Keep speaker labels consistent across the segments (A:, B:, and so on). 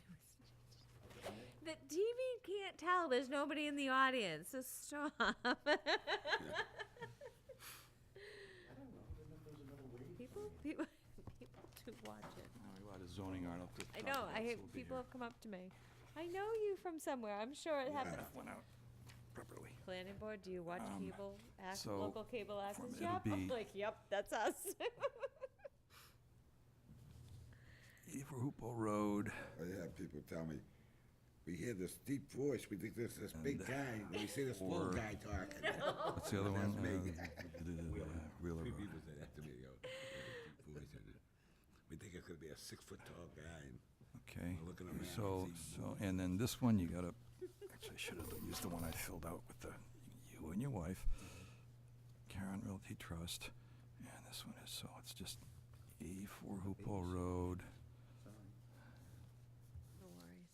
A: TV can't tell. There's nobody in the audience. So stop.
B: I don't know, I didn't know if there was another way.
A: people, people, people do watch it.
C: A lot of zoning aren't up to.
A: I know. I hate people have come up to me. I know you from somewhere. I'm sure it happened.
C: Went out properly.
A: Planning board, do you watch
C: Um,
A: cable, ac-
C: so,
A: local cable
C: from-
A: access?
C: it'll
A: Yep. I'm
C: be-
A: like, yep, that's us.
C: Hoopo Road.
D: I have people tell me, we hear this deep voice, we think there's this big
C: And-
D: guy, and we see this little
C: Or-
D: guy talking.
C: What's the other one?
D: That's me.
C: Uh, the- the, uh, Wheeler
D: Three
C: Road.
D: people say that to me, yo. deep voice, and We think it's gonna be a six-foot-tall guy, and
C: Okay.
D: We're looking at Matt
C: So,
D: and see-
C: so, and then this one, you gotta, actually, I should have used the one I filled out with the, you and your wife. Karen Realty Trust, and this one is, so it's just eighty-four Hoopo Road.
A: No worries.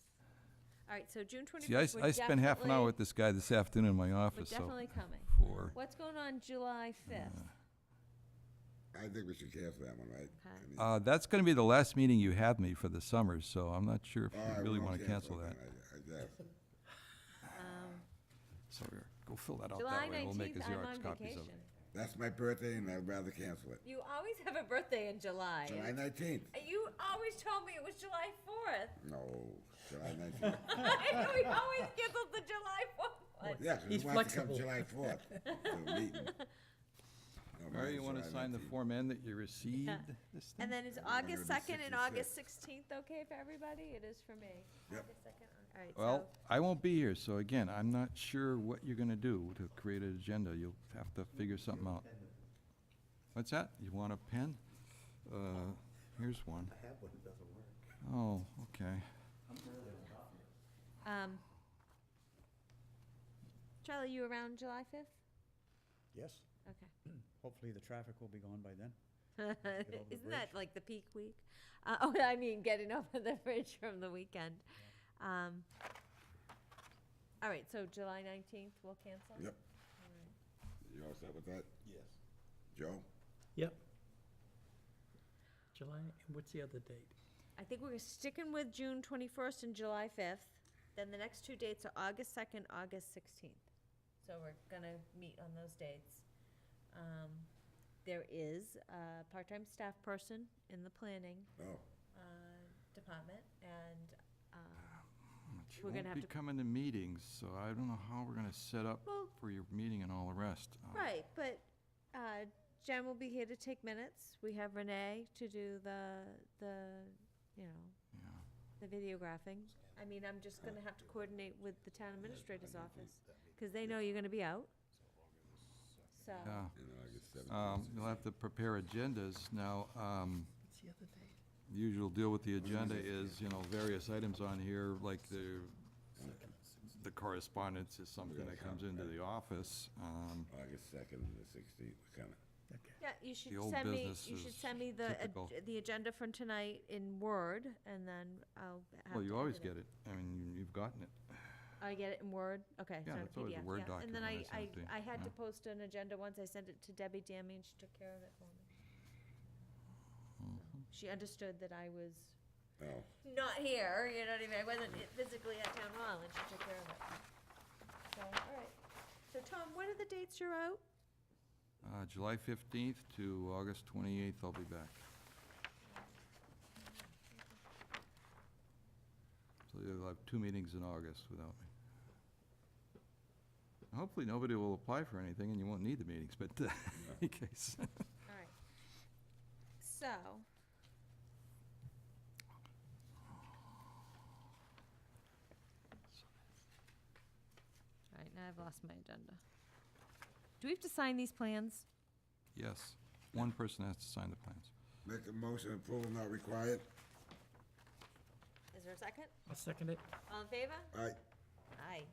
A: All right, so June
C: See, I,
A: twenty-first,
C: s- I spent half an hour with this guy this afternoon in my
A: We're
C: office, so.
A: definitely coming.
C: For,
A: What's going on July fifth?
C: Uh,
D: I think we should cancel that one, right? I
A: Okay.
D: mean,
C: uh, that's gonna be the last meeting you have me for the summer, so I'm not sure if
D: all right,
C: you really
D: we'll
C: wanna cancel that.
D: then, I I guess.
C: So, go fill that out
A: July
C: that way, we'll make a
A: nineteenth, I'm on
C: Xerox copies of it.
A: vacation.
D: That's my birthday, and I'd rather cancel it.
A: You always have a birthday in July.
D: July nineteenth?
A: You always told me it was July fourth.
D: No, July nineteenth.
A: I know we always canceled the July fourth.
D: Yeah, 'cause
E: He's
D: who wants to come
E: flexible.
D: July fourth to the meeting? No,
C: Mary, you
D: mine's
C: wanna
D: July
C: sign the
D: 19th.
C: Form N that you received this thing?
A: And then is August second and
D: 166.
A: August sixteenth okay for everybody? It is for me.
D: Yep.
A: August 2nd, All right,
C: Well,
A: so,
C: I won't be here, so again, I'm not sure what you're gonna do to create an agenda. You'll have to figure something out. What's that? You want a pen? Uh, here's one.
E: I have one, it doesn't work.
C: Oh, okay.
A: um, Charlie, you around July fifth?
E: Yes,
A: Okay.
E: hopefully the traffic will be gone by then. the
A: Isn't that like the peak week? Uh, oh, I mean, getting over the bridge from the weekend. Um, all right, so July nineteenth, we'll cancel?
D: Yep.
A: All right.
D: You all set with that,
E: Yes.
D: Joe?
F: Yep. July, and what's the other date?
A: I think we're sticking with June twenty-first and July fifth. Then the next two dates are August second, August sixteenth. So we're gonna meet on those dates. Um, there is a part-time staff person in the planning,
D: Oh,
A: uh, department and, um,
C: She
A: We're gonna
C: won't
A: have
C: be
A: to-
C: coming to meetings, so I don't know how we're gonna set up
A: Well-
C: for your meeting and all the rest. Um,
A: right, but, uh, Jen will be here to take minutes. We have Renee to do the, the, you know,
C: Yeah.
A: the videographing. I mean, I'm just gonna have to coordinate with the town administrator's office, because they know you're gonna be out. So,
C: Yeah.
D: in August seventeenth.
C: Um, you'll have to prepare agendas. Now, um,
F: What's the other date?
C: the usual deal with the agenda is, you know, various items on here, like the, the correspondence is something that comes into the office. Um,
D: August second and the sixteenth, we're coming.
F: Okay.
A: yeah, you should
C: The old
A: send me,
C: business
A: you should
C: is
A: send me the, ag-
C: typical.
A: the agenda from tonight in Word, and then I'll have
C: Well, you
A: to
C: always
A: edit
C: get it. I mean, you- you've gotten it.
A: I get it in Word, okay, it's
C: Yeah,
A: not a
C: it's always a
A: PDF,
C: Word
A: yeah. And then I,
C: document when
A: I,
C: it's empty,
A: I had to
C: yeah.
A: post an agenda once, I sent it to Debbie Dammy, and she took care of it for me. So,
C: Mm-hmm.
A: She understood that I was
D: Oh,
A: not here, you know what I mean, I wasn't physically at town hall, and she took care of it. So, all right, so Tom, what are the dates you're out?
C: Uh, July 15th to August 28th, I'll be back. So you'll have two meetings in August without me. Hopefully, nobody will apply for anything and you won't need the meetings, but uh, in case.
A: All right. So. All right, now I've lost my agenda. Do we have to sign these plans?
C: Yes, one person has to sign the plans.
D: make a motion, approval not required.
A: Is there a second?
F: I'll second it.
A: All in favor?
D: All right,
A: Aye.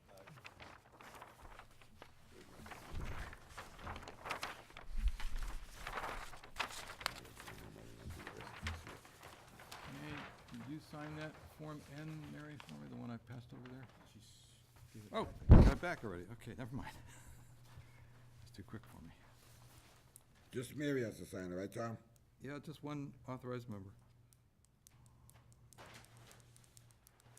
C: Hey, did you sign that Form N, Mary, for me, the one I passed over there? Oh, I got it back already. Okay, never mind. It's too quick for me.
D: just Mary has to sign it, right, Tom?
C: Yeah, just one authorized member.